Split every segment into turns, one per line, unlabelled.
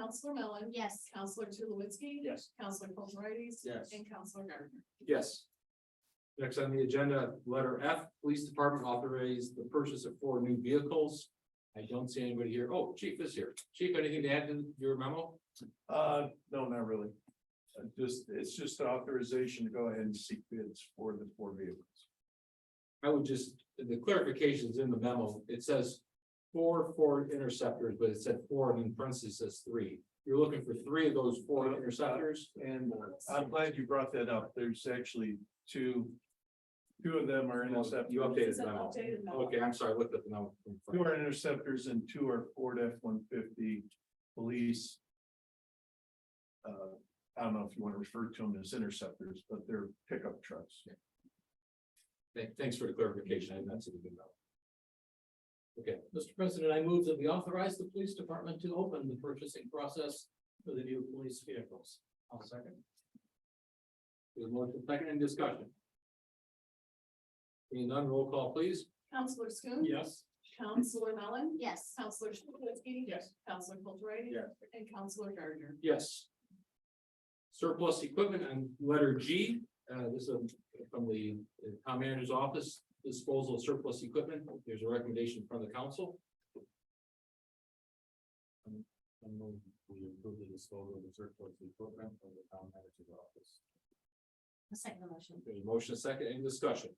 Counselor Mellon.
Yes.
Counselor Tulowitzki.
Yes.
Counselor Kulturitis.
Yes.
And Counselor Gardner.
Yes. Next on the agenda, letter F, Police Department authorized the purchase of four new vehicles. I don't see anybody here. Oh, Chief is here. Chief, anything to add to your memo?
Uh, no, not really. Uh, Just, it's just authorization to go ahead and seek bids for the four vehicles.
I would just, the clarification's in the memo. It says four Ford Interceptors, but it said four and in parentheses says three. You're looking for three of those four Interceptors?
And uh, I'm glad you brought that up. There's actually two. Two of them are
You
interceptors.
updated
It's
the
an
memo.
updated memo.
Okay, I'm sorry, I looked at the memo. from front.
Two are interceptors and two are Ford F one fifty police. Uh, I don't know if you want to refer to them as interceptors, but they're pickup trucks.
Thank- Thanks for the clarification. I did not see the good memo. Okay, Mr. President, I move that we authorize the police department to open the purchasing process for the new police vehicles. I'll second. There's motion second and discussion. Seeing none, roll call please.
Counselor Schoen.
Yes.
Counselor Mellon.
Yes.
Counselor Tulowitzki.
Yes.
Counselor Kulturitis.
Yes.
And Counselor Gardner.
Yes. Surplus equipment and letter G, uh, this is from the uh, town manager's office, disposal of surplus equipment. There's a recommendation from the council. I move we approve the disposal of the surplus equipment from the town manager's office.
The second motion.
There's a motion, a second, any discussion?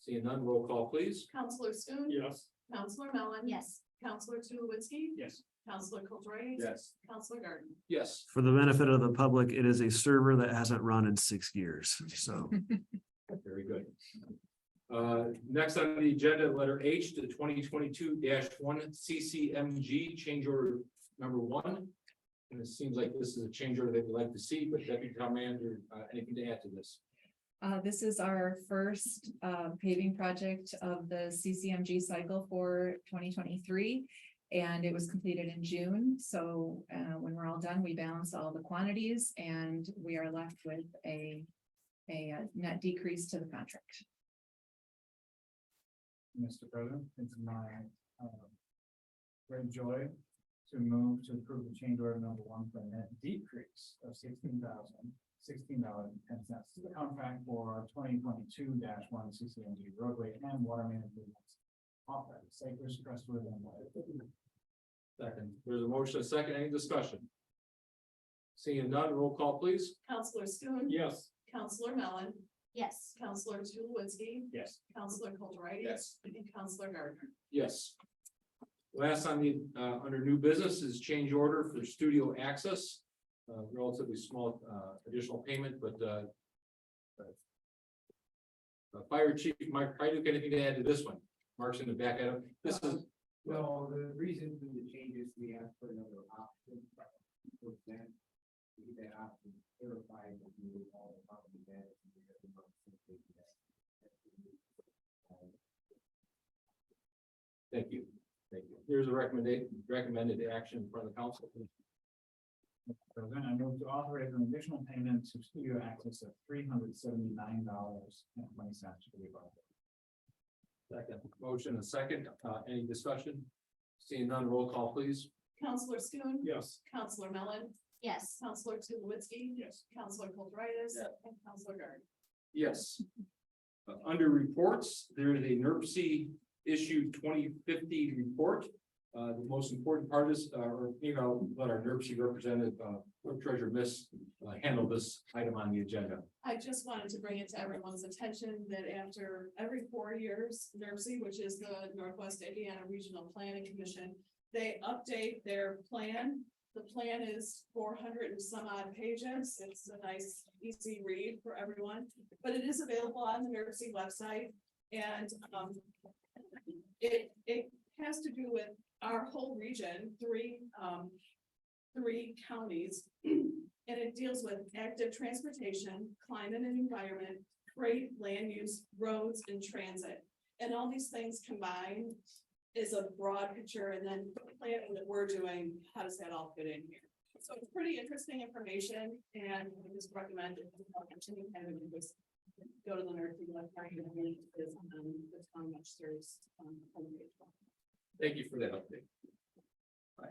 Seeing none, roll call please.
Counselor Schoen.
Yes.
Counselor Mellon.
Yes.
Counselor Tulowitzki.
Yes.
Counselor Kulturitis.
Yes.
Counselor Gardner.
Yes.
For the benefit of the public, it is a server that hasn't run in six years, so.
Very good. Uh, next on the agenda, letter H to twenty twenty-two one CCMG change order number one. And it seems like this is a change order that we'd like to see, but Deputy Town Manager, uh, anything to add to this?
Uh, this is our first, uh, paving project of the CCMG cycle for twenty twenty-three. And it was completed in June, so, uh, when we're all done, we balance all the quantities and we are left with a, a uh, net decrease to the contract.
Mr. President, it's my um, great joy to move to approve the change order number one for a net decrease of sixteen thousand, sixteen dollars and ten cents to the contract for twenty twenty-two one CCMG roadway and water main improvements. Off at Cypress Crestwood and White.
Second, there's a motion, a second, any discussion? Seeing none, roll call please.
Counselor Schoen.
Yes.
Counselor Mellon.
Yes.
Counselor Tulowitzki.
Yes.
Counselor Kulturitis.
Yes.
And Counselor Gardner.
Yes. Last on the, uh, under new business is change order for studio access. Uh, relatively small, uh, additional payment, but, uh. uh, Fire Chief Mark, I do anything to add to this one. Mark's in the back end. This is,
Well, the reason for the changes, we asked for another option. For that, to get that option clarified, if you were all about the bad.
thank you. Thank you. Here's a recommended, recommended action from the council.
So then I move to authorize an additional payment to studio access of three hundred seventy-nine dollars and twenty cents to the above.
Second. Motion and second, uh, any discussion? Seeing none, roll call please.
Counselor Schoen.
Yes.
Counselor Mellon.
Yes.
Counselor Tulowitzki.
Yes.
Counselor Kulturitis.
Yeah.
And Counselor Gardner.
Yes. Uh, Under reports, there is a NERC issue twenty fifty report. Uh, the most important part is, uh, or, you know, let our NERC representative, uh, Clerk Treasurer Miss, uh, handle this item on the agenda.
I just wanted to bring it to everyone's attention that after every four years, NERC, which is the Northwest Indiana Regional Planning Commission, they update their plan. The plan is four hundred and some odd pages. It's a nice, easy read for everyone, but it is available on the NERC website. And, um, it, it has to do with our whole region, three, um, three counties. And it deals with active transportation, climate and environment, freight, land use, roads and transit. And all these things combined is a broad picture and then the planning that we're doing, how does that all fit in here? So it's pretty interesting information and I just recommend it. Continue having it just Go to the nerd, you like, find it, and it is on the town much serves. um, homepage.
Thank you for that update.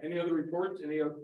Any other Uh, reports, any other